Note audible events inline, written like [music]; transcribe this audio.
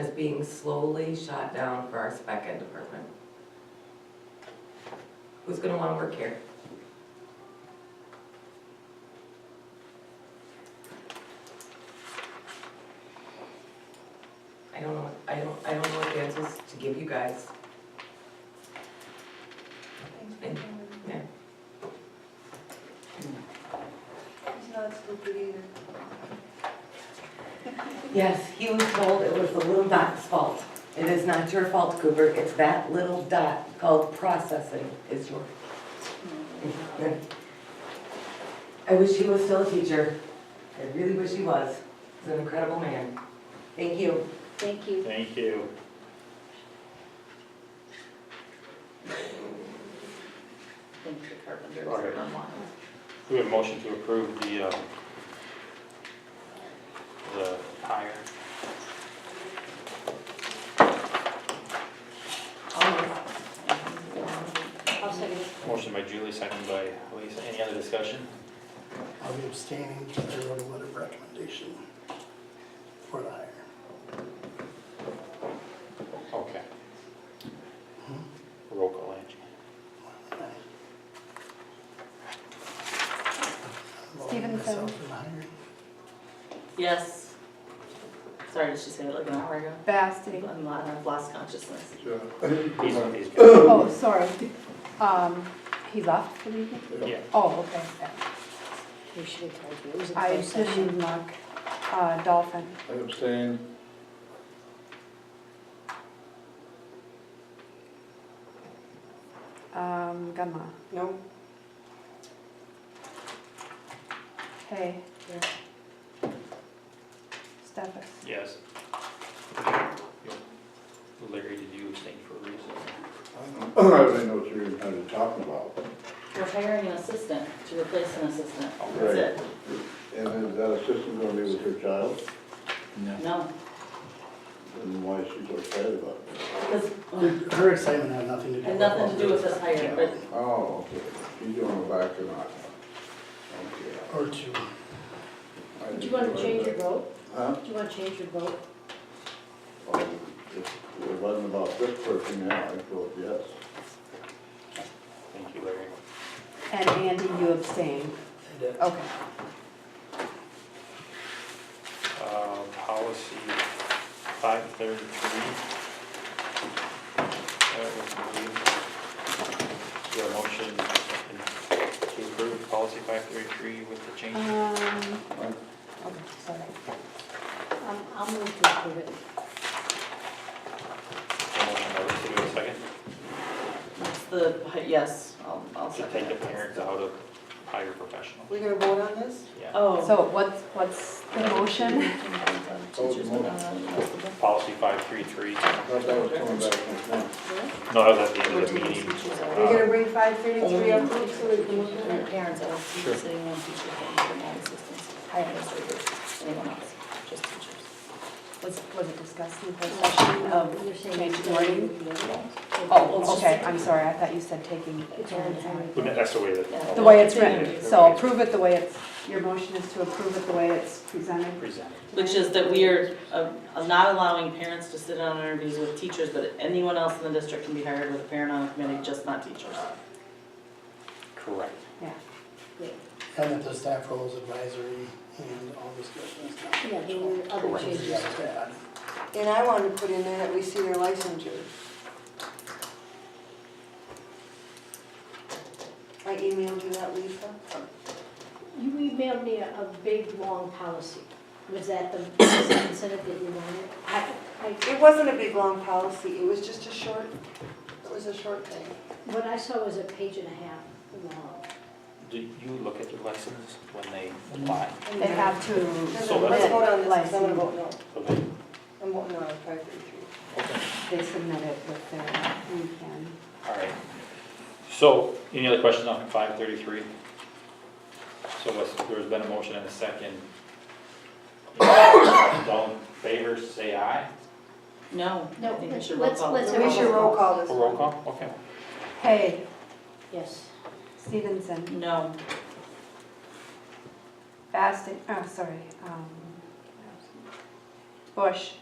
is being slowly shot down for our spec ed department. Who's gonna wanna work here? I don't know, what- I don't, I don't know what answers to give you guys. Thanks for coming. Yeah. It's not stupid either. Yes, he was told it was the little dot's fault. It is not your fault, Cooper, it's that little dot called processing is your. I wish he was still a teacher. I really wish he was. He's an incredible man. Thank you. Thank you. Thank you. Thank you, Carpenter. Alright. We have a motion to approve the, uh, the hire. I'll second. Motion by Julie, second by Lisa. Any other discussion? I'll be abstaining because I wrote a letter of recommendation for the hire. Okay. Roll call, Angie. Involving myself in the hiring. Yes. Sorry, did she say it like an hour ago? [coughs] Basting. I'm lo- I've lost consciousness. These, these guys. Oh, sorry. Um, he left for the evening? Yeah. Oh, okay. We should have told you. It was a I closed session. didn't look. Uh, Dolphin. I abstain. Um, Gunma. No. Hey. Yeah. Stefas. Yes. Larry, did you abstain for a reason? I don't I don't even know what you're even kind of talking about. We're hiring an assistant to replace an assistant. Right. That's And is that assistant gonna be with her child? it. No, And why is she so excited about it? because Her excitement had nothing to do with. had nothing to do with this hire, but Oh, okay. She's going back or not? Okay. Or two. I Do you want to change your vote? Huh? Do you want to change your vote? Well, If it wasn't about this person, yeah, I'd vote yes. Thank you, Larry. And Andy, you abstain. Okay. Uh, Policy 533. That was moved. Do I motion to approve policy 533 with the change? Um, Right. okay, sorry. Um, I'll move to approve it. Motion by Lisa, do I have a second? it's the, hi- yes, I'll, I'll To second take the that. parents out of hire professional. We're gonna vote on this? Yeah. Oh. So what's, what's the motion? Teachers, but not on the rest of them. Policy 533. I thought that was coming back next month. No, that was at the end We're of the taking meeting. teachers You're out. gonna bring five thirty-three up, so we can look at Our it? parents are Sure. sitting on teachers and all assistants, higher administrators, anyone else, just teachers. Was, was it discussed in the first session You're of saying change abstain. wording? It's Oh, just- okay, I'm sorry, I thought you said taking It's parents out. on- Well, That's the way that. The way it's written, so approve it the way it's, your motion is to approve it the way it's presented. Presented. Which is that we are uh, uh, not allowing parents to sit on interviews with teachers, but anyone else in the district can be hired with a parent on the committee, just not teachers. Correct. Yeah, And that the staff roles advisory and all discussion is not. Yeah, there were other Correct. changes. Yeah, bad. And I wanna put in there that we see their licensure. I emailed you that, Lisa. You emailed me a, a big, long policy. Was that the, was that considered that you wanted? I, I, It wasn't a big, long policy, it was just a short, it was a short thing. what I saw was a page and a half long. Do you look at the lessons when they apply? they have to, Let's So that's- vote on this, 'cause I'm gonna vote no. So they- I'm voting no on five thirty-three. they submit it with their, we can. All right. So, any other questions on five thirty-three? So what's- there's been a motion and a second. All in favor, say aye. No, I No, think we let's- should roll let's- call. let's- We should roll call this For one. roll call? Okay. Hey, Yes. Stevenson, No, Basting, oh, sorry, um, Bush,